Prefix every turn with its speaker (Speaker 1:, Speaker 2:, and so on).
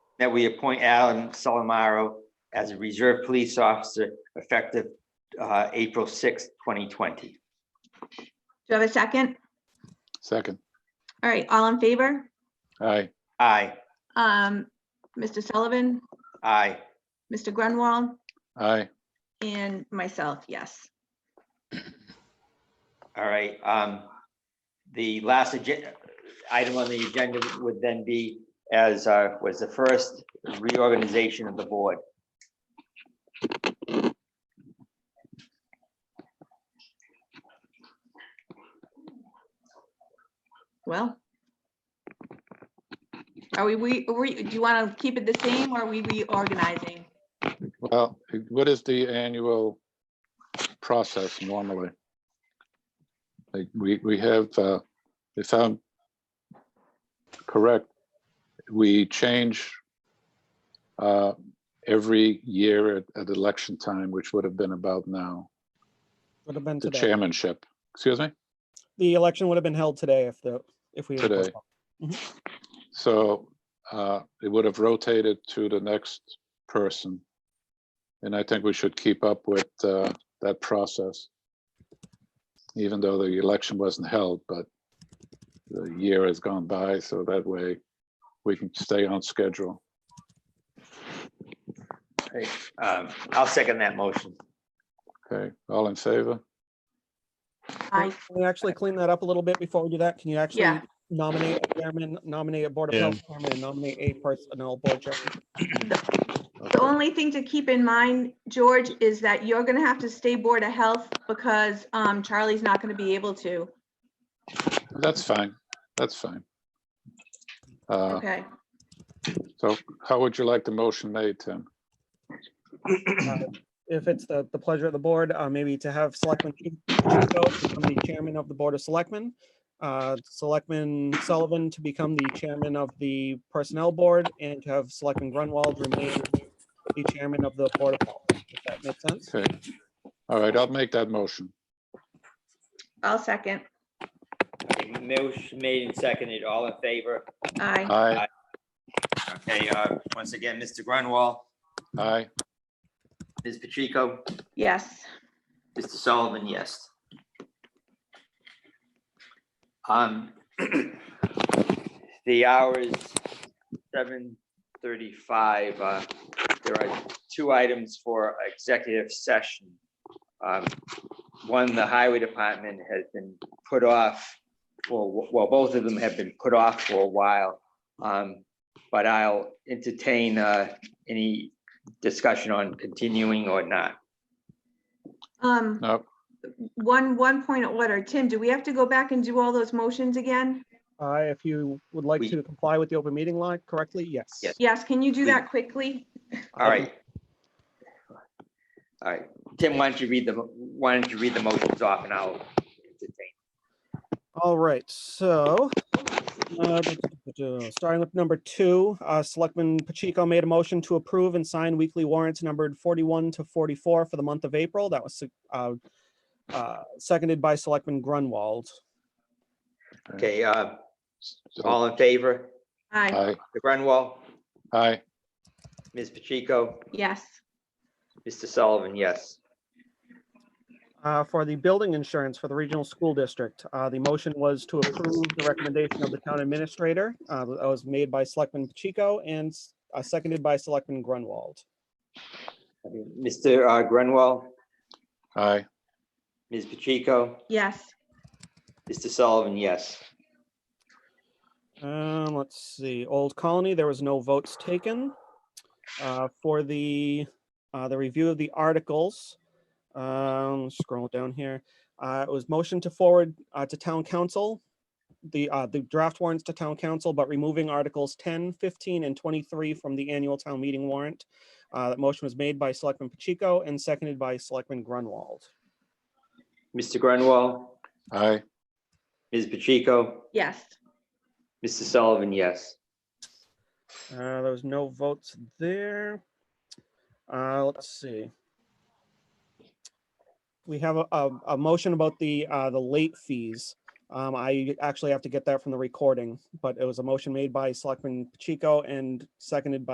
Speaker 1: that we appoint Alan Salamaro as a reserve police officer effective uh, April sixth, twenty twenty.
Speaker 2: Do you have a second?
Speaker 3: Second.
Speaker 2: All right, all in favor?
Speaker 3: Aye.
Speaker 1: Aye,
Speaker 2: Um, Mr. Sullivan,
Speaker 1: aye.
Speaker 2: Mr. Grunwald,
Speaker 3: Aye.
Speaker 2: and myself, yes.
Speaker 1: All right, um, the last agen- item on the agenda would then be as, uh, was the first reorganization of the board.
Speaker 2: Well. Are we, we, are we- do you want to keep it the same or are we reorganizing?
Speaker 3: Well, what is the annual process normally? Like, we, we have, uh, if I'm correct, we change uh, every year at, at election time, which would have been about now,
Speaker 4: Would have been
Speaker 3: the
Speaker 4: today.
Speaker 3: chairmanship. Excuse me?
Speaker 4: The election would have been held today if the, if we. had
Speaker 3: Today.
Speaker 4: postponed.
Speaker 3: So uh, it would have rotated to the next person. And I think we should keep up with uh, that process. Even though the election wasn't held, but the year has gone by, so that way we can stay on schedule.
Speaker 1: Um, I'll second that motion.
Speaker 3: Okay, all in favor?
Speaker 4: Oh,
Speaker 2: I,
Speaker 4: Can we actually clean that up a little bit before we do that? Can you actually
Speaker 2: Yeah.
Speaker 4: nominate a chairman, nominate a board of
Speaker 5: Yeah.
Speaker 4: health chairman, and nominate a personnel board chairman?
Speaker 2: the
Speaker 3: Okay.
Speaker 2: only thing to keep in mind, George, is that you're going to have to stay Board of Health because um, Charlie's not going to be able to.
Speaker 3: That's fine, that's fine. Uh,
Speaker 2: Okay.
Speaker 3: So how would you like the motion made, Tim?
Speaker 4: Uh, If it's the, the pleasure of the board, uh, maybe to have Selectman Chu- Chuko become the chairman of the Board of Selectmen, uh, Selectman Sullivan to become the chairman of the Personnel Board, and to have Selectman Grunwald remain the chairman of the Board of Health, if that makes sense.
Speaker 3: Okay, all right, I'll make that motion.
Speaker 2: I'll second.
Speaker 1: Motion made and seconded, all in favor.
Speaker 2: Aye.
Speaker 3: Aye,
Speaker 1: Okay, uh, once again, Mr. Grunwall,
Speaker 3: aye.
Speaker 1: Ms. Pacheco,
Speaker 2: Yes.
Speaker 1: Mr. Sullivan, yes. Um, the hour is seven thirty-five. Uh, there are two items for executive session. Um, one, the highway department has been put off, for well, both of them have been put off for a while. Um, but I'll entertain, uh, any discussion on continuing or not.
Speaker 2: Um,
Speaker 3: No,
Speaker 2: one, one point of order. Tim, do we have to go back and do all those motions again?
Speaker 4: Uh, if you would like
Speaker 1: We-
Speaker 4: to comply with the open meeting law correctly, yes.
Speaker 1: Yes.
Speaker 2: Yes, can you do
Speaker 1: Yeah.
Speaker 2: that quickly?
Speaker 1: All right. All right, Tim, why don't you read the, mo- why don't you read the motions off and I'll entertain.
Speaker 4: All right, so. uh, Starting with number two, uh, Selectman Pacheco made a motion to approve and sign weekly warrants numbered forty-one to forty-four for the month of April. That was uh, uh, seconded by Selectman Grunwald.
Speaker 1: Okay, uh,
Speaker 3: so-
Speaker 1: all in favor,
Speaker 2: Aye,
Speaker 3: Aye,
Speaker 1: the Grunwall,
Speaker 3: aye,
Speaker 1: Ms. Pacheco,
Speaker 2: yes.
Speaker 1: Mr. Sullivan, yes.
Speaker 4: Uh, For the building insurance for the regional school district, uh, the motion was to approve the recommendation of the town administrator. uh, That was made by Selectman Pacheco and uh, seconded by Selectman Grunwald.
Speaker 1: Mr. uh, Grunwall,
Speaker 3: aye,
Speaker 1: Ms. Pacheco,
Speaker 2: Yes,
Speaker 1: Mr. Sullivan, yes.
Speaker 4: Um, let's see, Old Colony, there was no votes taken. Uh, for the, uh, the review of the articles, um, scroll down here. Uh, it was motion to forward, uh, to town council, the, uh, the draft warrants to town council, but removing articles 10, 15, and twenty-three from the annual town meeting warrant. Uh, that motion was made by Selectman Pacheco and seconded by Selectman Grunwald.
Speaker 1: Mr. Grunwall,
Speaker 3: aye,
Speaker 1: Ms. Pacheco,
Speaker 2: yes.
Speaker 1: Mr. Sullivan, yes.
Speaker 4: Uh, there was no votes there. Uh, let's see. We have a, a, a motion about the, uh, the late fees. Um, I actually have to get that from the recording, but it was a motion made by Selectman Pacheco and seconded by